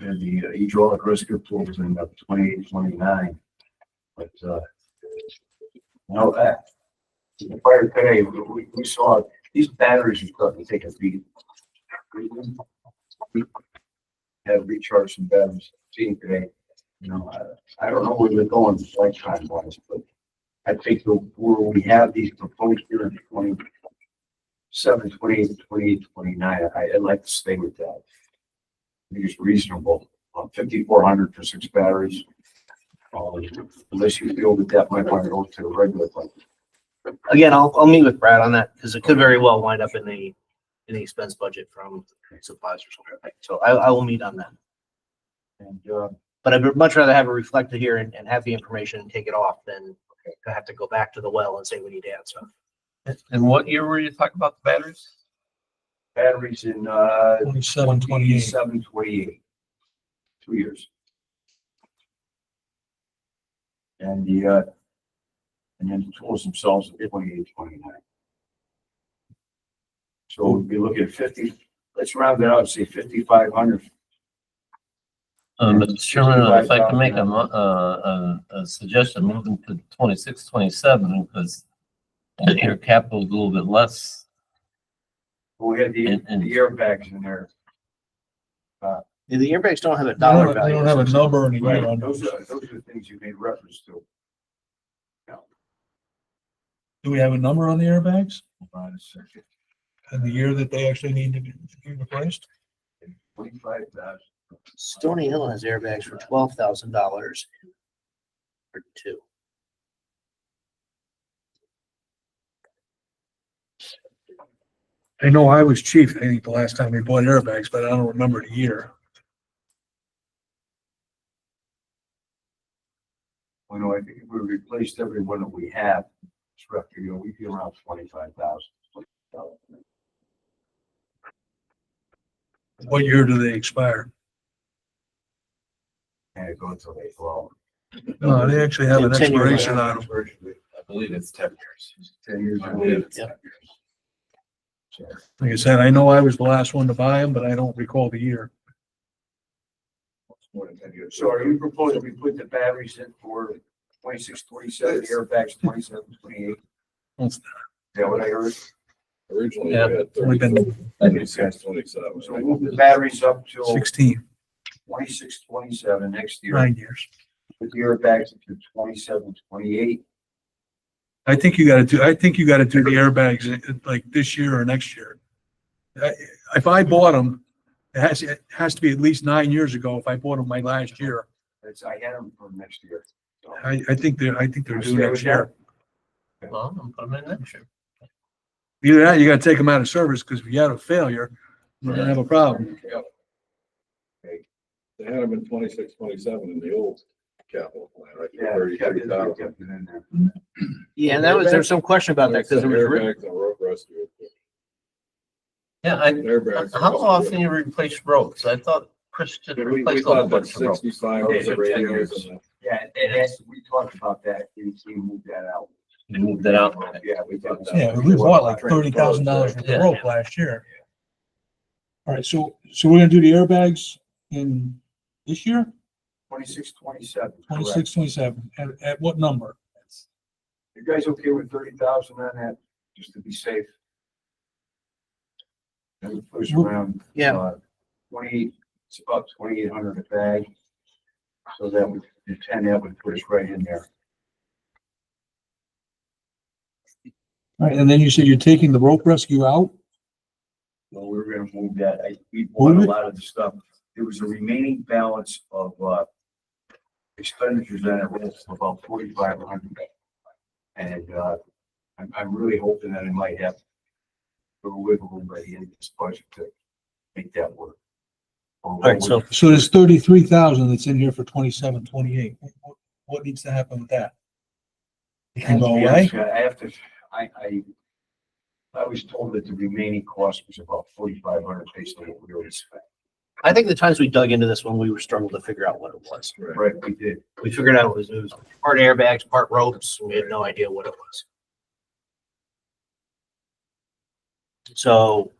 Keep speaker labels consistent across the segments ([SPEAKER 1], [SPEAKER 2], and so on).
[SPEAKER 1] and uh, the hydraulic rescue pools in about twenty-eight, twenty-nine. But, uh, now that, the fire today, we- we, we saw these batteries are starting to take a beat. We Have recharged some batteries, seen today, you know, I, I don't know where they're going lifetime wise, but I think the, where we have these proposed here in twenty seven, twenty-eight, twenty-eight, twenty-nine, I, I'd like to stay with that. I think it's reasonable, uh, fifty-four hundred for six batteries. Uh, Unless you feel that that might want to go to a regular, like,
[SPEAKER 2] Again, I'll, I'll meet with Brad on that because it could very well wind up in a, in the expense budget from supplies or something. like that. So I, I will meet on that.
[SPEAKER 1] and, uh,
[SPEAKER 2] But I'd much rather have it reflected here and, and have the information and take it off than to have to go back to the well and say we need to add stuff.
[SPEAKER 3] And what year were you talking about the batteries?
[SPEAKER 1] batteries in, uh,
[SPEAKER 4] Twenty-seven, twenty-eight.
[SPEAKER 1] twenty-seven, twenty-eight. Two years. And the, uh, and then the tools themselves are twenty-eight, twenty-nine. So we'd be looking at fifty, let's round it out, say fifty-five hundred
[SPEAKER 3] Um, Mr. Chairman, I'd like to make a, mo- uh, a, a suggestion, moving to twenty-six, twenty-seven, because your capital's a little bit less.
[SPEAKER 1] We had the,
[SPEAKER 3] And- and-
[SPEAKER 1] the airbags in there.
[SPEAKER 2] Yeah, The airbags don't have a
[SPEAKER 4] They don't
[SPEAKER 2] dollar
[SPEAKER 4] have- they
[SPEAKER 2] value.
[SPEAKER 4] don't have a number in a year on
[SPEAKER 1] Those
[SPEAKER 4] those.
[SPEAKER 1] are, those are things you made reference to.
[SPEAKER 4] Do we have a number on the airbags
[SPEAKER 1] Hold on a second.
[SPEAKER 4] and the year that they actually need to be be replaced?
[SPEAKER 1] Twenty-five thousand,
[SPEAKER 2] Stony Hill has airbags for twelve thousand dollars. Or two.
[SPEAKER 4] I know I was chief, I think, the last time we bought airbags, but I don't remember the year.
[SPEAKER 1] you know, I think if we replaced every one that we have, it's roughly, you know, we'd be around twenty-five thousand.
[SPEAKER 4] What year do they expire?
[SPEAKER 1] And it goes till April.
[SPEAKER 4] No, they actually have an
[SPEAKER 2] Ten years.
[SPEAKER 4] expiration on them.
[SPEAKER 5] I believe it's ten years.
[SPEAKER 1] Ten years.
[SPEAKER 5] I believe
[SPEAKER 1] ago.
[SPEAKER 5] it's 10 years.
[SPEAKER 4] Like I said, I know I was the last one to buy them, but I don't recall the year.
[SPEAKER 1] More than ten years. So are you proposing we put the batteries in for twenty-six, twenty-seven, the airbags twenty-seven, twenty-eight?
[SPEAKER 4] That's-
[SPEAKER 1] Is that what I heard?
[SPEAKER 5] Originally, we
[SPEAKER 3] Yeah.
[SPEAKER 5] had
[SPEAKER 4] Only been
[SPEAKER 5] thirty-four, twenty-six,
[SPEAKER 1] So
[SPEAKER 5] twenty-seven.
[SPEAKER 1] move the batteries up till
[SPEAKER 4] Sixteen,
[SPEAKER 1] twenty-six, twenty-seven next year.
[SPEAKER 4] nine years.
[SPEAKER 1] Put the airbags to twenty-seven, twenty-eight.
[SPEAKER 4] I think you gotta do, I think you gotta do the airbags uh, like this year or next year. I- If I bought them, it has, it has to be at least nine years ago if I bought them my last year.
[SPEAKER 1] That's, I had them for next year. So,
[SPEAKER 4] I, I think they're, I think they're due
[SPEAKER 1] Okay,
[SPEAKER 4] next year.
[SPEAKER 3] Well, I'm putting them in next year.
[SPEAKER 4] Either that, or you gotta take them out of service, because if you had a failure, you're gonna have a problem.
[SPEAKER 5] They had them in twenty-six, twenty-seven in the old capital plan, right?
[SPEAKER 1] Yeah, we kept it- we
[SPEAKER 5] Thirty-three thousand.
[SPEAKER 1] kept it in there.
[SPEAKER 2] Yeah, and that was, there was some question about that because it was written,
[SPEAKER 5] Airbags and road rescue.
[SPEAKER 3] Yeah, I,
[SPEAKER 5] Airbags.
[SPEAKER 3] how often you replace roads? I thought Chris just
[SPEAKER 5] We- We
[SPEAKER 3] replaced a whole
[SPEAKER 5] thought that
[SPEAKER 3] bunch of roads.
[SPEAKER 5] sixty-five
[SPEAKER 1] Okay,
[SPEAKER 5] was the
[SPEAKER 1] so 10
[SPEAKER 5] radios
[SPEAKER 1] years.
[SPEAKER 5] and
[SPEAKER 1] Yeah, and that's, we talked about that, and we moved that out.
[SPEAKER 3] They moved it out.
[SPEAKER 1] Yeah, we talked about.
[SPEAKER 4] Yeah, we bought like thirty thousand dollars worth of
[SPEAKER 3] Yeah.
[SPEAKER 4] rope last year. All right, so, so we're gonna do the airbags in this year,
[SPEAKER 1] Twenty-six, twenty-seven.
[SPEAKER 4] twenty-six, twenty-seven, at, at what number?
[SPEAKER 1] You guys okay with thirty thousand on that, just to be safe? And it push around.
[SPEAKER 2] yeah,
[SPEAKER 1] uh, Twenty, it's about twenty-eight hundred a bag. So that would, the ten, that would put us right in there.
[SPEAKER 4] All right, and then you said you're taking the rope rescue out?
[SPEAKER 1] Well, we were gonna move that, I, we bought
[SPEAKER 4] Move
[SPEAKER 1] a
[SPEAKER 4] it?
[SPEAKER 1] lot of the stuff, there was a remaining balance of, uh, expenditures on it, was about forty-five hundred. And, uh, I'm, I'm really hoping that it might have a little wiggle room by the end of this budget to make that work. All
[SPEAKER 2] right, so-
[SPEAKER 4] So there's thirty-three thousand that's in here for twenty-seven, twenty-eight. What- What needs to happen with that? It can go away?
[SPEAKER 1] I have to, I, I, I was told that the remaining cost was about forty-five hundred based on what we already spent.
[SPEAKER 2] I think the times we dug into this one, we were struggling to figure out what it was.
[SPEAKER 1] Right, we did.
[SPEAKER 2] We figured out it was, it was part airbags, part ropes. We had no idea what it was. So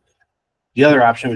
[SPEAKER 2] the other option